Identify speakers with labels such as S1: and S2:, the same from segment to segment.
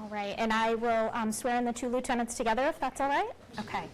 S1: All right, and I will um, swear in the two lieutenants together, if that's all right? Okay.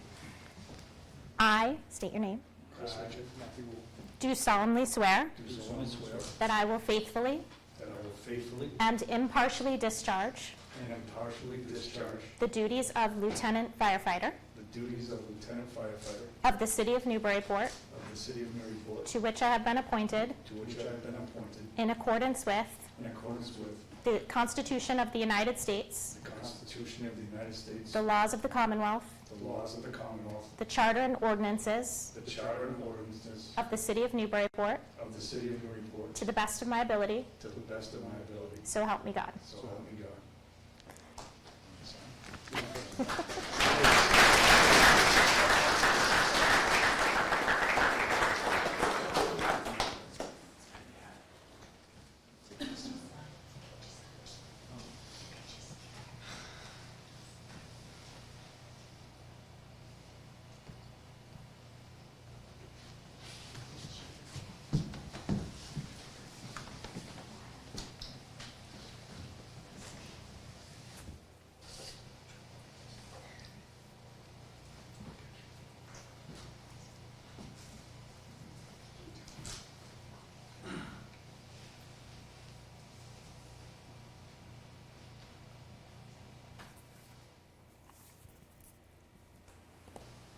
S1: I, state your name,
S2: Matthew Wu,
S1: do solemnly swear
S2: do solemnly swear
S1: that I will faithfully
S2: that I will faithfully
S1: and impartially discharge
S2: and impartially discharge
S1: the duties of lieutenant firefighter
S2: the duties of lieutenant firefighter
S1: of the city of Newburyport,
S2: of the city of Maryville,
S1: to which I have been appointed
S2: to which I have been appointed
S1: in accordance with
S2: in accordance with
S1: the Constitution of the United States,
S2: the Constitution of the United States,
S1: the laws of the Commonwealth,
S2: the laws of the Commonwealth,
S1: the charter and ordinances
S2: the charter and ordinances
S1: of the city of Newburyport,
S2: of the city of Maryville,
S1: to the best of my ability,
S2: to the best of my ability,
S1: so help me God.
S2: so help me God.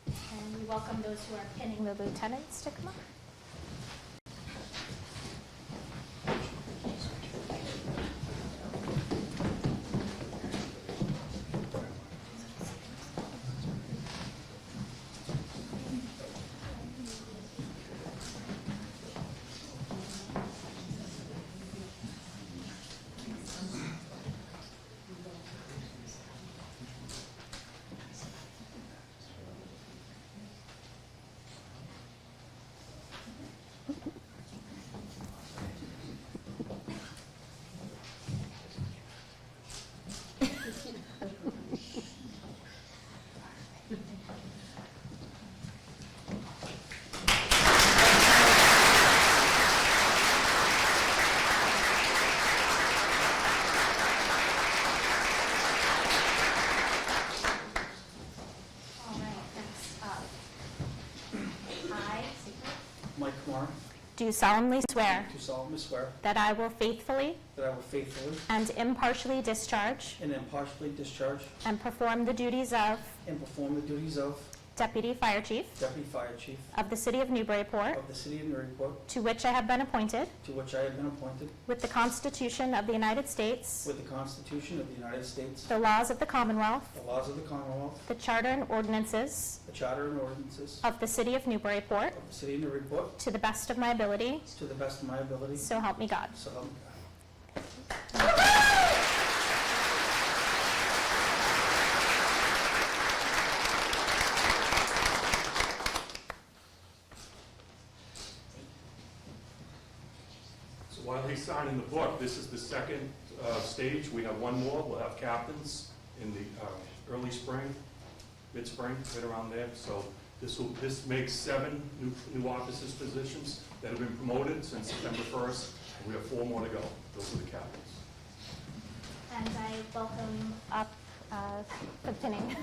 S1: And we welcome those who are pinning the lieutenants to come up. All right, next up. I
S3: Mike Kamara,
S1: do solemnly swear
S3: do solemnly swear
S1: that I will faithfully
S3: that I will faithfully
S1: and impartially discharge
S3: and impartially discharge
S1: and perform the duties of
S3: and perform the duties of
S1: Deputy Fire Chief
S3: Deputy Fire Chief
S1: of the City of Newburyport,
S3: of the City of Newburyport,
S1: to which I have been appointed
S3: to which I have been appointed,
S1: with the Constitution of the United States,
S3: with the Constitution of the United States,
S1: the laws of the Commonwealth,
S3: the laws of the Commonwealth,
S1: the charter and ordinances
S3: the Charter and ordinances
S1: of the City of Newburyport,
S3: of the City of Newburyport,
S1: to the best of my ability,
S3: to the best of my ability,
S1: so help me God.
S3: so help me God.
S4: So while he's signing the book, this is the second uh, stage. We have one more. We'll have captains in the uh, early spring, mid-spring, right around there. So this will, this makes seven new new officers' positions that have been promoted since September 1st. We have four more to go. Those are the captains.
S1: And I welcome up uh, the pinning.